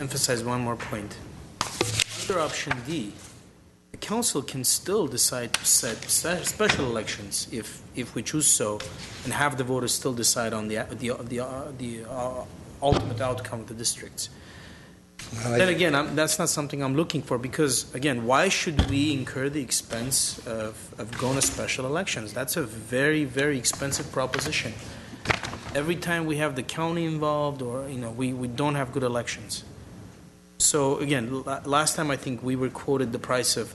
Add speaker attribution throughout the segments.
Speaker 1: emphasize one more point. Under option D, the council can still decide to set se- special elections if, if we choose so, and have the voters still decide on the, the, the, uh, the uh, ultimate outcome of the districts. Then
Speaker 2: I-
Speaker 1: again, I'm, that's not something I'm looking for because, again, why should we incur the expense of, of going to special elections? That's a very, very expensive proposition. Every time we have the county involved, or you know, we, we don't have good elections. So again, la- last time I think we were quoted the price of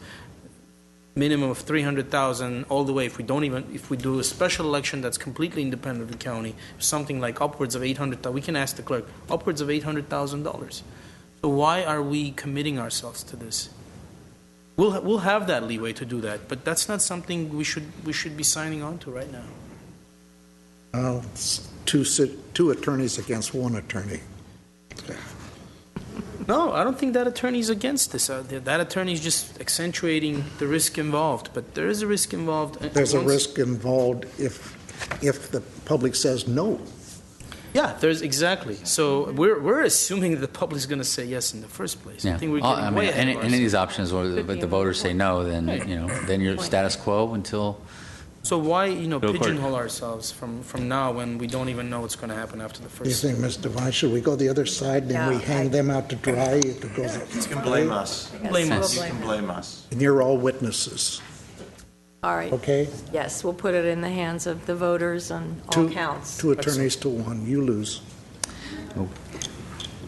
Speaker 1: minimum of three hundred thousand all the way. If we don't even if we do a special election that's completely independent of the county, something like upwards of eight hundred. We can ask the clerk upwards of eight hundred thousand dollars. So why are we committing ourselves to this? We'll, ha- we'll have that leeway to do that, but that's not something we should, we should be signing on to right now.
Speaker 2: well, it's Two, si- two attorneys against one attorney.
Speaker 1: No, I don't think that attorney's against this. Uh, th- That attorney's just accentuating the risk involved, but there is a risk involved. uh, and
Speaker 2: There's a
Speaker 1: once-
Speaker 2: risk involved if, if the public says no.
Speaker 1: Yeah, there's, exactly. So we're, we're assuming that the public's going to say yes in the first place. I
Speaker 3: Yeah.
Speaker 1: think we're
Speaker 3: All- I
Speaker 1: getting
Speaker 3: mean,
Speaker 1: way ahead
Speaker 3: any,
Speaker 1: of
Speaker 3: any of
Speaker 1: ourselves.
Speaker 3: these options, or the, but the voters say no, then you know, then you're status quo until
Speaker 1: So why, you know,
Speaker 3: Go court.
Speaker 1: pigeonhole ourselves from, from now when we don't even know what's going to happen after the
Speaker 2: Do you
Speaker 1: first?
Speaker 2: think, Ms. Devine, should we go the other side, then we
Speaker 4: No, I-
Speaker 2: hang them out to dry? It goes-
Speaker 5: You can blame us.
Speaker 1: Blame us.
Speaker 3: Yes.
Speaker 5: You can blame us.
Speaker 2: And you're all witnesses,
Speaker 4: All right,
Speaker 2: okay?
Speaker 4: yes, we'll put it in the hands of the voters on all
Speaker 2: Two-
Speaker 4: counts.
Speaker 2: Two attorneys to one, you lose.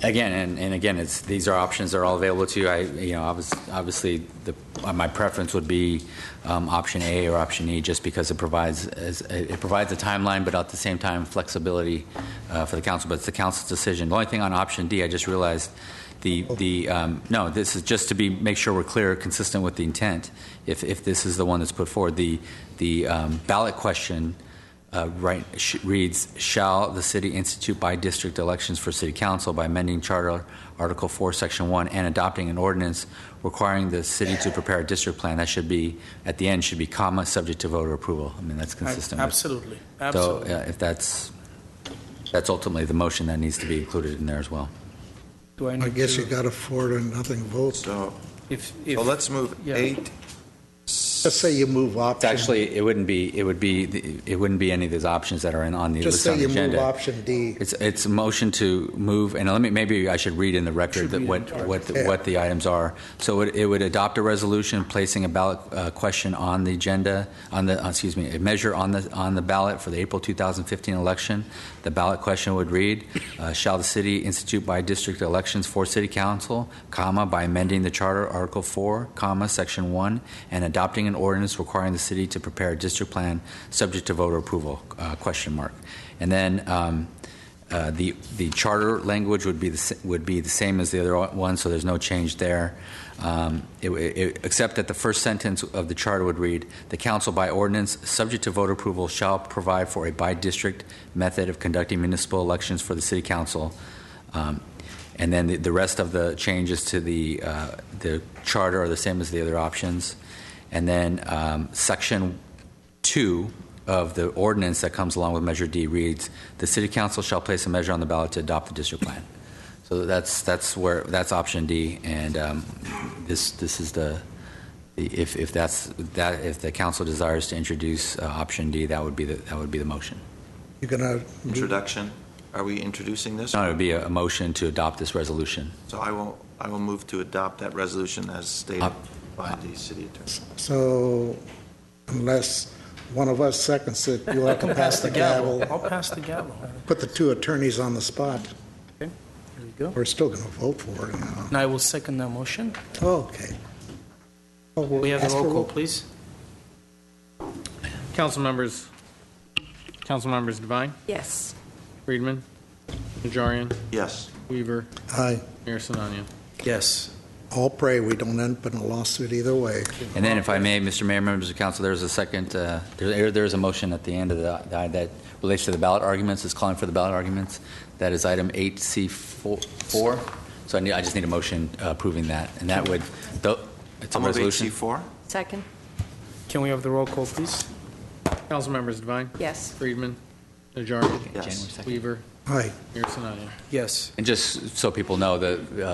Speaker 3: again and, and again, it's these are options that are all available to you. I you know, obviously, obviously the, uh, my preference would be um, option A or option E, just because it provides as, it provides a timeline, but at the same time flexibility uh, for the council. But it's the council's decision. The only thing on option D, I just realized. The, the um, no, this is just to be make sure we're clear, consistent with the intent. If, if this is the one that's put forward, the the um, ballot question uh, right, sh- reads, "Shall the city institute by district elections for city council by amending Charter Article 4, Section 1, and adopting an ordinance requiring the city to prepare a district plan?" That should be, at the end, should be comma, "subject to voter approval." I mean, that's consistent. with-
Speaker 1: Absolutely, absolutely.
Speaker 3: So uh, if that's, that's ultimately the motion that needs to be included in there as well.
Speaker 1: Do I
Speaker 2: I
Speaker 1: need
Speaker 2: guess
Speaker 1: to-
Speaker 2: you got a four and nothing vote.
Speaker 5: So,
Speaker 1: If, if.
Speaker 5: so let's move
Speaker 1: yeah.
Speaker 5: eight.
Speaker 2: Just say you move
Speaker 3: It's
Speaker 2: option.
Speaker 3: actually, it wouldn't be, it would be, the- it wouldn't be any of these options that are in, on the
Speaker 2: Just
Speaker 3: list on
Speaker 2: say
Speaker 3: the
Speaker 2: you move
Speaker 3: agenda.
Speaker 2: option D.
Speaker 3: It's, it's a motion to move, and let me, maybe I should read in the record
Speaker 1: Should
Speaker 3: that
Speaker 1: read
Speaker 3: what,
Speaker 1: it.
Speaker 3: what, the- what the items are. So it, it would adopt a resolution placing a ballot uh, question on the agenda, on the, uh, excuse me, a measure on the, on the ballot for the April 2015 election. The ballot question would read, uh, shall the city institute by district elections for city council, comma, by amending the charter Article 4, comma, Section 1, and adopting an ordinance requiring the city to prepare a district plan subject to voter approval, uh, question mark. And then, um, uh, The the charter language would be the, sa- would be the same as the other one, so there's no change there. Um, it- it- Except that the first sentence of the charter would read, "The council by ordinance, subject to voter approval, shall provide for a by-district method of conducting municipal elections for the city council." Um, And then the- the rest of the changes to the, uh, the charter are the same as the other options. And then um, section two of the ordinance that comes along with Measure D reads, "The city council shall place a measure on the ballot to adopt the district plan." So that's, that's where, that's option D, and um, this, this is the, if, if that's, that, if the council desires to introduce uh, option D, that would be the, that would be the motion.
Speaker 2: You're gonna,
Speaker 5: Introduction. Are we introducing this?
Speaker 3: No, it would be a a motion to adopt this resolution.
Speaker 5: So I will, I will move to adopt that resolution as stated
Speaker 3: Up.
Speaker 5: by the city attorney.
Speaker 2: so unless one of us seconds it, you'll have to pass the gavel.
Speaker 1: I'll pass the gavel.
Speaker 2: Put the two attorneys on the spot.
Speaker 1: There you go.
Speaker 2: We're still gonna vote for it now.
Speaker 1: And I will second that motion.
Speaker 2: Okay. Oh, we'll
Speaker 1: We have
Speaker 2: ask
Speaker 1: the
Speaker 2: for
Speaker 1: roll call,
Speaker 2: roll-
Speaker 1: please.
Speaker 6: Council members, council members Devine,
Speaker 4: Yes,
Speaker 6: Friedman, Najarian,
Speaker 5: Yes.
Speaker 6: Weaver,
Speaker 2: Aye.
Speaker 6: Mayor Sinania.
Speaker 1: Yes.
Speaker 2: All pray we don't end up in a lawsuit either way.
Speaker 3: And then if I may, Mr. Mayor, members of council, there's a second, uh, there there is a motion at the end of the, that relates to the ballot arguments, is calling for the ballot arguments. That is item 8C4. So I need, I just need a motion uh, approving that, and that would, tho- it's a
Speaker 5: I'll move
Speaker 3: resolution.
Speaker 5: HC4.
Speaker 4: second,
Speaker 1: Can we have the roll call, please?
Speaker 6: Council members Devine,
Speaker 4: yes.
Speaker 6: Friedman, Najarian,
Speaker 5: Yes.
Speaker 6: Weaver,
Speaker 2: Aye.
Speaker 6: Mayor Sinania.
Speaker 1: Yes.
Speaker 3: And just so people know, the uh,